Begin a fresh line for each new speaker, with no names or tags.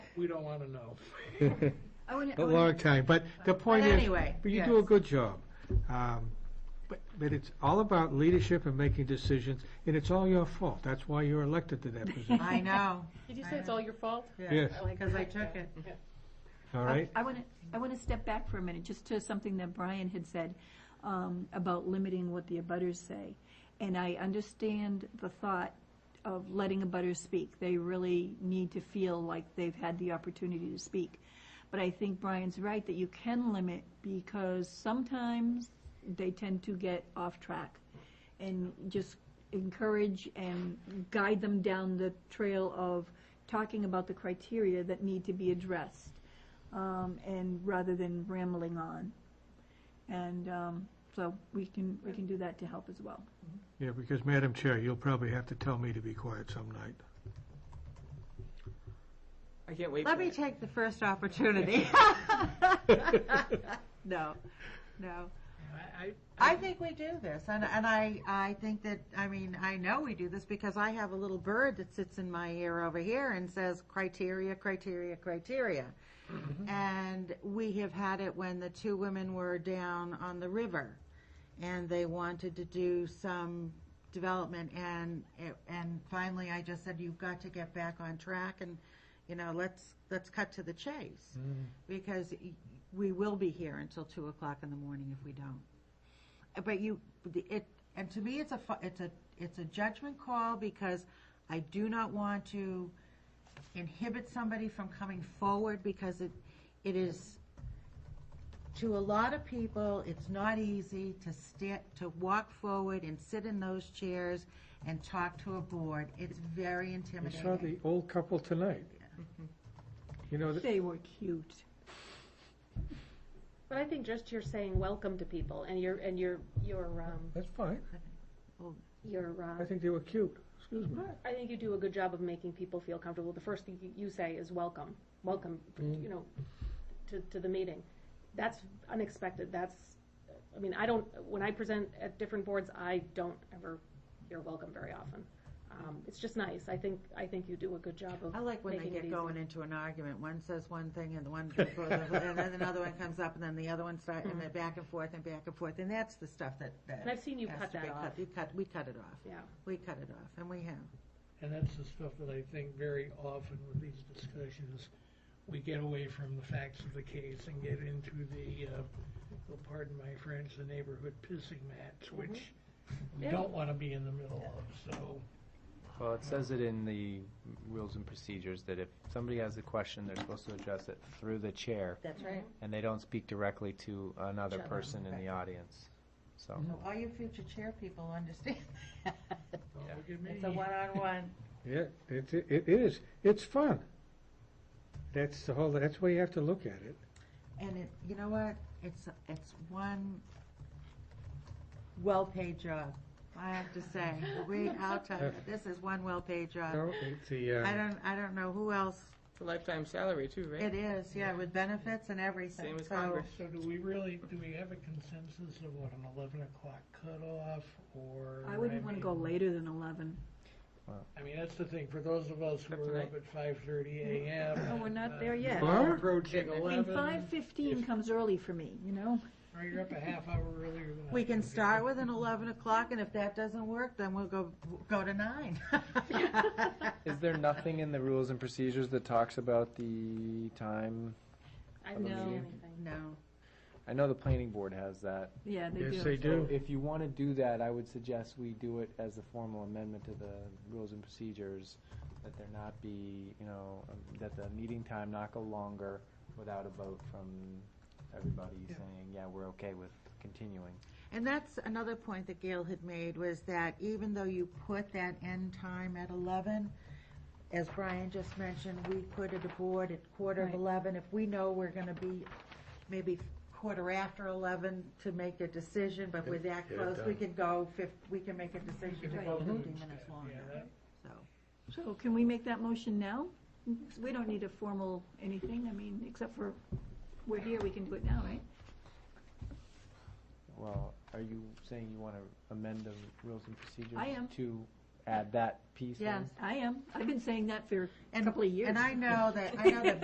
We don't want to know.
I wouldn't- I
A long
wouldn't-
time, but the point
But
is,
anyway,
but you do a
yes.
good job. Um, But, but it's all about leadership and making decisions, and it's all your fault. That's why you're elected to that position.
I know,
Did you say it's all your fault?
Yes,
because I took it.
all
I-
right?
I want to, I want to step back for a minute, just to something that Brian had said um, about limiting what the abutters say. And I understand the thought of letting abutters speak. They really need to feel like they've had the opportunity to speak. But I think Brian's right that you can limit because sometimes they tend to get off track. And just encourage and guide them down the trail of talking about the criteria that need to be addressed um, and rather than rambling on. And um, so we can, we can do that to help as well.
Yeah, because Madam Chair, you'll probably have to tell me to be quiet some night.
I can't wait
Let
for
me
it.
take the first opportunity. No, no.
I, I-
I think we do this, and, and I, I think that, I mean, I know we do this because I have a little bird that sits in my ear over here and says criteria, criteria, criteria. And we have had it when the two women were down on the river and they wanted to do some development and, it- and finally I just said, you've got to get back on track and, you know, let's, let's cut to the chase. Because y- we will be here until two o'clock in the morning if we don't. Uh, But you, the- it, and to me, it's a, fu- it's a, it's a judgment call because I do not want to inhibit somebody from coming forward because it, it is, to a lot of people, it's not easy to stand, to walk forward and sit in those chairs and talk to a board. It's very
We saw
intimidating.
the old couple tonight. You know, th-
They were cute.
But I think just you're saying welcome to people and your, and your, your, um,
that's fine.
your,
I
uh,
think they were cute. Excuse me.
I think you do a good job of making people feel comfortable. The first thing you- you say is welcome, welcome, you know, to, to the meeting. That's unexpected. That's, I mean, I don't, when I present at different boards, I don't ever hear welcome very often. Um, it's just nice. I think, I think you do a good job of
I like when they
making it
get
easy.
going into an argument. One says one thing and the one, and then another one comes up and then the other one starts, and they're back and forth and back and forth. And that's the stuff that, that.
And I've seen you
has
cut
to be
that off.
You cut, we cut it off.
Yeah.
We cut it off, and we have.
and that's the stuff that I think very often with these discussions, we get away from the facts of the case and get into the, uh, well, pardon my French, the neighborhood pissing match, which we
Yeah.
don't want to be in the middle of, so.
Well, it says it in the rules and procedures that if somebody has a question, they're supposed to address it through the chair,
That's right.
and they don't speak directly to another
Each other,
person in the audience. So,
So all you future chair people understand that.
don't
Yeah.
look at me.
It's a one-on-one.
Yeah, it, it it is. It's fun. That's the whole, that's the way you have to look at it.
And it, you know what? It's, it's one well-paid job. I have to say, we, I'll tell you, this is one well-paid job.
No, it's the,
Uh, I
uh,
don't, I don't know who else
It's a lifetime salary too, right?
It is, yeah, with benefits and everything.
Same as
So,
Congress.
So do we really, do we have a consensus of what, an eleven o'clock cutoff, or?
I wouldn't want to go
mean-
later than 11.
I mean, that's the thing, for those of us who
Except
are
tonight.
up at five thirty AM.
Oh, we're not there yet.
Huh?
uh, Approaching
I mean,
eleven.
5:15
if-
comes early for me, you know?
Or you're up a half hour earlier than I
We can
would be.
start with an eleven o'clock, and if that doesn't work, then we'll go, go to nine.
is there nothing in the rules and procedures that talks about the time?
I didn't see
No.
anything.
No.
I know the planning board has that.
Yeah, they do.
yes, they do.
So If you want to do that, I would suggest we do it as a formal amendment to the rules and procedures, that there not be, you know, um, that the meeting time not go longer without a vote from everybody
Yeah.
saying, yeah, we're okay with continuing.
And that's another point that Gail had made, was that even though you put that end time at eleven, as Brian just mentioned, we put it aboard at quarter of
Right.
eleven, if we know we're gonna be maybe quarter after eleven to make a decision, but we're that
Get it
close, we
done.
can go fif, we can make a decision to go
Right.
fifteen minutes
Yeah,
longer,
that-
so.
So can we make that motion now? We don't need a formal anything, I mean, except for, we're here, we can do it now, right?
Well, are you saying you want to amend the rules and procedures?
I am.
To add that piece in?
Yes.
I am. I've been saying that for a
And-
couple of years.
And I know that, I know that